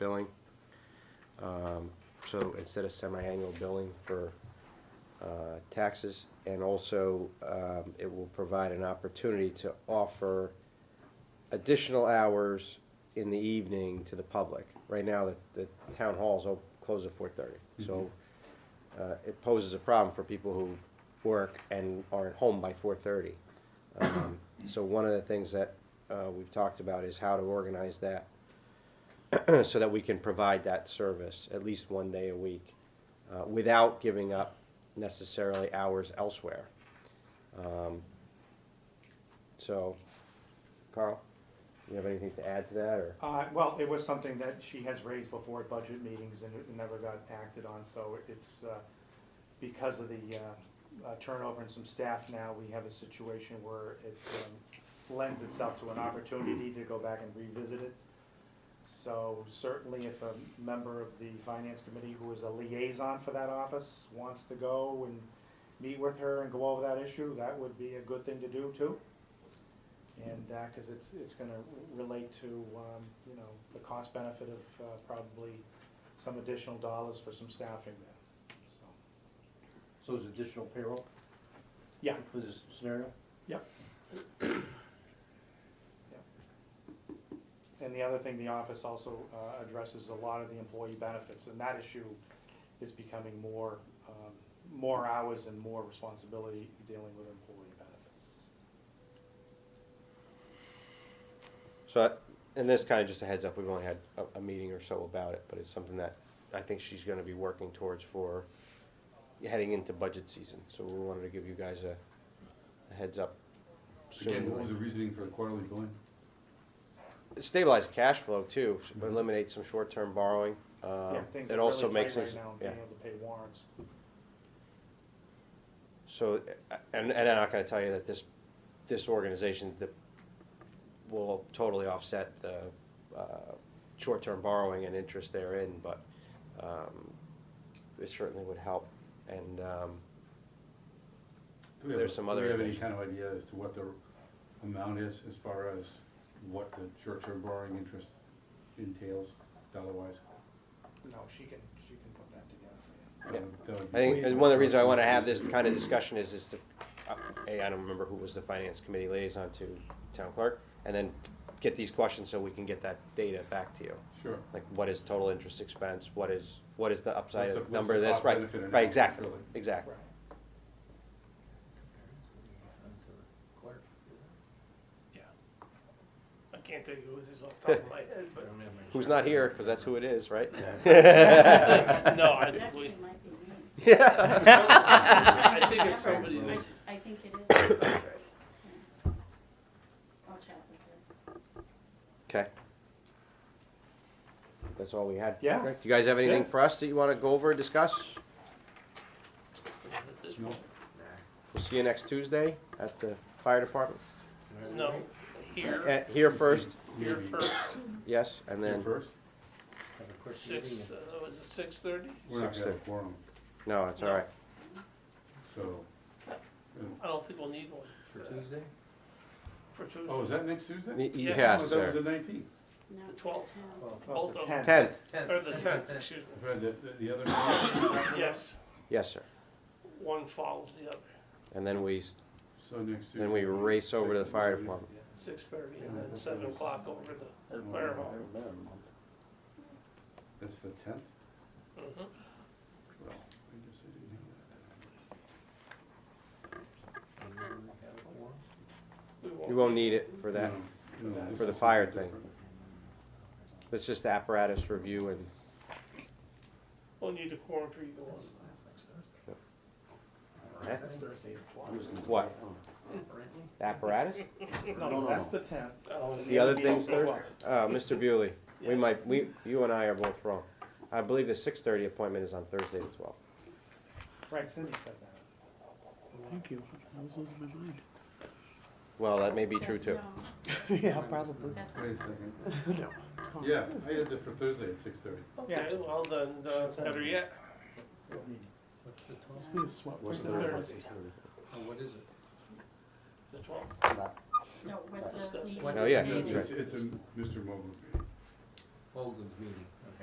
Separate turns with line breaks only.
billing. Um, So instead of semi-annual billing for uh, taxes, and also um, it will provide an opportunity to offer additional hours in the evening to the public. Right now, the, the town halls op- close at four-thirty, so uh, it poses a problem for people who work and are at home by four-thirty. So one of the things that uh, we've talked about is how to organize that so that we can provide that service at least one day a week uh, without giving up necessarily hours elsewhere. Um, So, Carl, you have anything to add to that, or?
Uh, well, it was something that she has raised before at budget meetings and it never got acted on, so it's, uh, because of the, uh, uh, turnover in some staff now, we have a situation where it um, lends itself to an opportunity to go back and revisit it. So certainly if a member of the finance committee who is a liaison for that office wants to go and meet with her and go over that issue, that would be a good thing to do too. And, uh 'cause cause it's, it's gonna relate to, um, you know, the cost benefit of, uh, probably some additional dollars for some staffing there, so.
So it's additional payroll?
Yeah.
For this scenario?
And the other thing, the office also uh, addresses a lot of the employee benefits, and that issue is becoming more, um, more hours and more responsibility dealing with employee benefits.
So, I- and this kind of just a heads up, we've only had a, a meeting or so about it, but it's something that I think she's gonna be working towards for heading into budget season, so we wanted to give you guys a, a heads up.
Again, what was the
soon.
reasoning for the quarterly billing?
Stabilize cash flow too,
Mm-hmm.
eliminate some short-term borrowing, uh,
Yeah, things
it
are
also
really
makes
tight right
things,
now, and
yeah.
being able to pay warrants.
So, uh, and, and I'm not gonna tell you that this, this organization that will totally offset the, uh, short-term borrowing and interest therein, but, um, it certainly would help. And, um,
Do we have-
There's some other
Do we have any
information.
kind of idea as to what the amount is as far as what the short-term borrowing interest entails dollar-wise?
No, she can, she can put that together.
Uh,
Yeah.
that would
I
be-
think, and one of the reasons I wanna have this kind of discussion is, is to, uh, A, I don't remember who was the finance committee liaison to town clerk, and then get these questions so we can get that data back to you.
Sure.
like what is total interest expense, what is, what is the upside
What's the-
of
what's
number
the
of this,
cost
right,
benefit analysis,
right, exactly,
really?
exactly.
Right.
Yeah. I can't tell you who this is off the top of my head, but.
Who's not here, because that's who it is, right?
No, I think
Actually,
we,
it might be me.
I think it's somebody
I-
that's,
I think it is. I'll chat with her.
Okay. That's all we had.
Yeah.
Okay. You guys have anything
Yeah.
for us that you wanna go over and discuss?
at this
No?
point,
We'll see you next Tuesday at the fire department,
no, here,
Uh, here first,
here
Maybe.
first,
yes, and
Here
then,
first?
six, uh, was it six thirty?
We're not
Six
gonna have a
to-
quorum,
no, it's all
No.
right.
so.
I don't think we'll need one. For Tuesday? For
Oh, is
Tuesday,
that next Tuesday?
Y-
Oh,
Yes.
Yes,
That was
sir.
the nineteenth.
No,
The 12th.
no.
Well,
both
it's
of
the
them,
Tenth,
or the tenth, excuse me,
I've heard that, that the other, night.
yes,
yes, sir.
one follows the other,
And then we, s-
so next Tuesday.
then we race over to the
Six
fire
thirty.
department.
six thirty, and then seven o'clock over the, the fire hall.
That's the tenth? Well, I
Mhm.
guess I didn't have
We
You
won't,
won't need it for that,
that. No, no, this
for the
is
fire
something
thing.
different.
it's just apparatus review and
we'll need a quorum for you to go on.
Okay.
What?
What? apparatus?
No, that's the tenth.
Oh,
The other
It'll be
things,
open.
Thursday, uh, Mr. Bewley, we
Yes.
might, we, you and I are both wrong. I believe the six thirty appointment is on Thursday the twelfth.
Right, Cindy said that.
Thank you. I was losing my mind.
Well, that may be true too.
No,
Yeah, probably.
that's
Wait a second.
No.
Yeah, I had that for Thursday at six thirty.
Okay, well then, uh, better yet,
We just swapped
What's
places.
the
Thursday.
Oh, What is it?
the twelfth.
No, what's the
Discuss.
meeting?
What's
Oh, yeah,
date?
that's
It's, it's a Mr. Mogul.
Holden's meeting.